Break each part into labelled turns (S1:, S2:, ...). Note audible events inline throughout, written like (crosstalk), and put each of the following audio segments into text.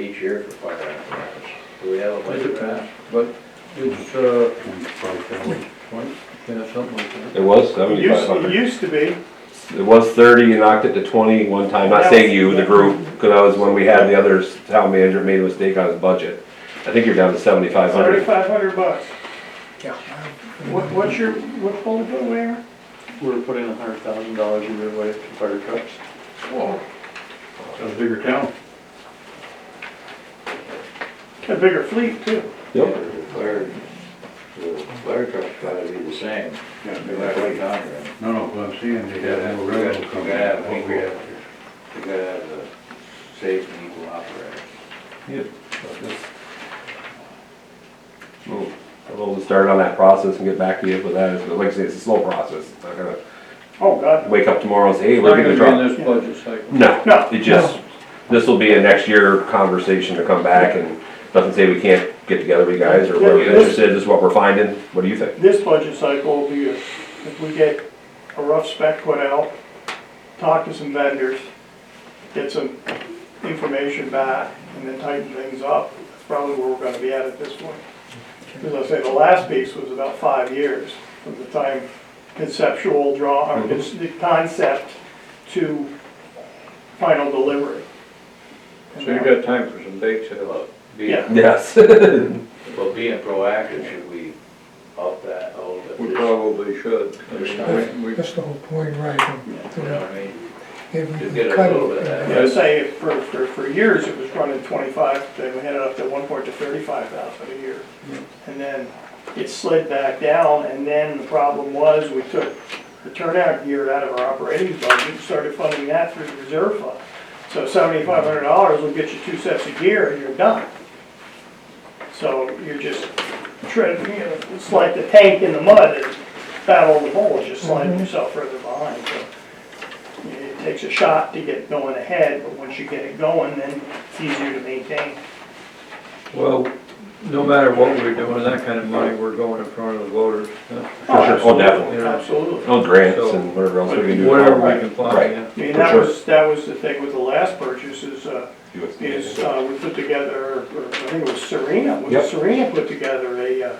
S1: each year for fire apparatus. Do we have a budget for that?
S2: But it's, uh, twenty, yeah, something like
S3: It was
S4: It
S3: seventy-five
S4: used, it
S3: hundred.
S4: used to be,
S3: It was thirty, you knocked it to twenty one time, not saying you, the group, because that was when we had the other town manager made a mistake on his budget. I think you're down to seventy-five hundred.
S4: thirty-five hundred bucks.
S2: Yeah.
S4: What, what's your, what bullet bill we are?
S5: We're putting a hundred thousand dollars a year away to fire trucks.
S6: That's a bigger town.
S4: A bigger fleet too.
S3: Yep,
S1: The fire, the fire truck's gotta be the same. They're
S6: No,
S1: like way down there.
S6: no, what I'm saying, they gotta have a railroad company.
S1: Yeah, I
S6: What
S1: think
S6: we
S1: we-
S6: have here.
S1: You gotta have the safe and equal operator.
S3: Well, we'll start on that process and get back to you with that, but like I say, it's a slow process. It's Not gonna
S4: Oh, God.
S3: wake up tomorrow and say, hey,
S2: that.
S3: we're gonna drop.
S2: Not gonna be in this budget cycle.
S3: No,
S4: No,
S3: it just, this will be a next year conversation to come back and doesn't say we can't get together with you guys or we're
S4: Yeah, this-
S3: interested, this is what we're finding, what do you think?
S4: This budget cycle will be, a- if we get a rough spec put out, talk to some vendors, get some information back, and then tighten things up, that's probably where we're gonna be at at this point. As I say, the last piece was about five years from the time conceptual draw, or just the concept to final delivery.
S2: So you got time for some dates to,
S1: Being,
S3: (laughs) Yes.
S1: well, being proactive, should we up that a little bit?
S2: we probably should. I mean, we- we-
S7: That's the whole point, right?
S1: You know what I mean?
S7: If we
S1: To
S7: can
S1: get a
S7: cut
S1: little bit of
S7: it,
S1: that.
S4: Yeah, say, for, for, for years, it was running twenty-five, they had it up to one point to thirty-five thousand a year. And then it slid back down, and then the problem was, we took the turnout gear out of our operating budget, and started funding that through the reserve fund. So seventy-five hundred dollars will get you two sets of gear, and you're done. So you're just treading, you know, it's like the tank in the mud, and battle the bulls, just sliding yourself further behind, so. It takes a shot to get going ahead, but once you get it going, then it's easier to maintain.
S2: Well, no matter what we're doing, that kind of money, we're going in front of the voters. huh?
S3: For sure. Oh, definitely.
S4: Absolutely.
S3: No grants and Oh, whatever else we can do.
S2: Whatever we can find,
S3: Right.
S2: yeah.
S4: I mean,
S3: For
S4: that
S3: sure.
S4: was, that was the thing with the last purchase is, uh,
S3: USDA.
S4: is, uh, we put together, or I think it was Serena,
S3: Yep.
S4: was Serena put together a, uh,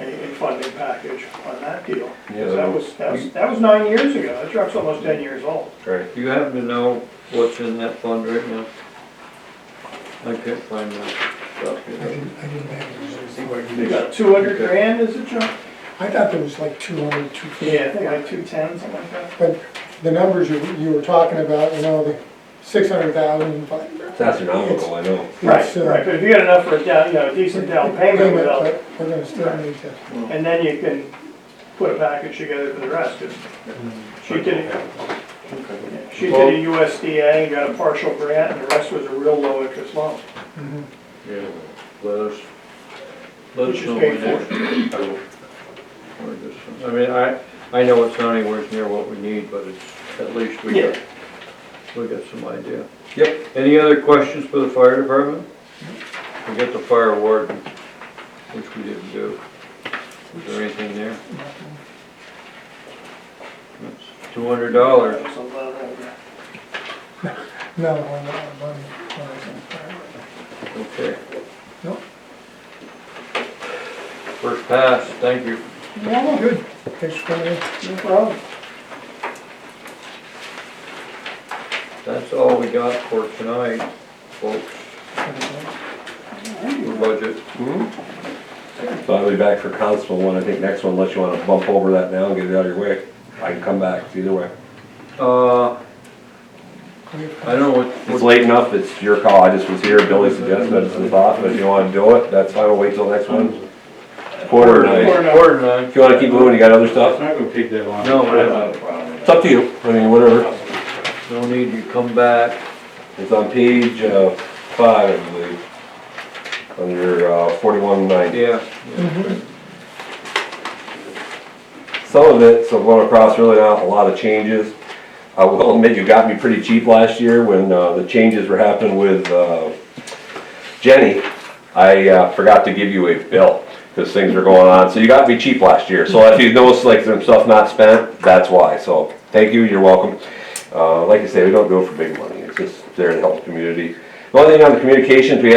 S4: a a funding package on that deal. 'Cause
S3: Yeah,
S4: That
S3: that
S4: was, that was, that was nine years ago, that truck's almost ten years old.
S3: Right.
S2: Do you happen to know what's in that fund right now? I can't find that stuff
S7: I
S2: here.
S7: didn't, I didn't have it.
S4: They got two hundred
S2: Okay.
S4: grand as a junk?
S7: I thought there was like 200, 250.
S4: Yeah, I think like two ten, something like that.
S7: But the numbers you, you were talking about, you know, the 600,000. but
S3: It's astronomical, I know.
S7: it's,
S4: Right,
S7: uh,
S4: right, but if you got enough for a down, you know, a decent down payment without
S7: but We're gonna still need to,
S4: And then you can put a package together for the rest of it. She did, she did a USDA and got a partial grant, and the rest was a real low interest loan,
S2: Yeah, Let us, let
S4: which
S2: us
S4: is
S2: know when
S4: paid
S2: that-
S4: for.
S2: I will order this one. I mean, I, I know it's not anywhere near what we need, but it's, at least we got, we got some idea.
S3: Yep.
S2: Any other questions for the fire department? We got the fire warden, which we didn't do. Was there anything there? Two hundred dollars.
S4: That's a lot of-
S7: no, I'm not, I'm not- I'm not.
S2: Okay.
S7: Nope.
S2: First pass, thank you.
S7: Yeah, good. Thanks for coming in.
S4: No problem.
S2: That's all we got for tonight, folks, for budget.
S3: So I'll be back for constable one, I think next one, unless you wanna bump over that now and get it out of your way. I can come back, it's either way.
S2: Uh,
S7: We have-
S2: I don't know what.
S3: It's late enough, it's your call, I just was here, Billy suggested it's the thought, but if you wanna do it, that's fine, we'll wait till next one. Quarter to nine.
S4: Quarter.
S2: Quarter nine.
S3: If you wanna keep moving, you got other
S6: It's
S3: stuff,
S6: not gonna take that long.
S1: I
S2: No,
S1: don't
S2: whatever.
S1: have a problem with
S3: it's up to you, I mean, whatever.
S2: no need to come back.
S3: It's on page, uh, five, I believe. Under, uh, forty-one ninety.
S2: Yeah.
S3: Some of it, so going across, really not a lot of changes. Uh, I will admit, you got me pretty cheap last year when uh, the changes were happening with uh, Jenny. I uh, forgot to give you a bill, because things were going on, so you got me cheap last year. So if you notice, like, some stuff not spent, that's why, so thank you, you're welcome. Uh, Like I say, we don't do it for big money, it's just there to help the community. The only thing on the communications, we had a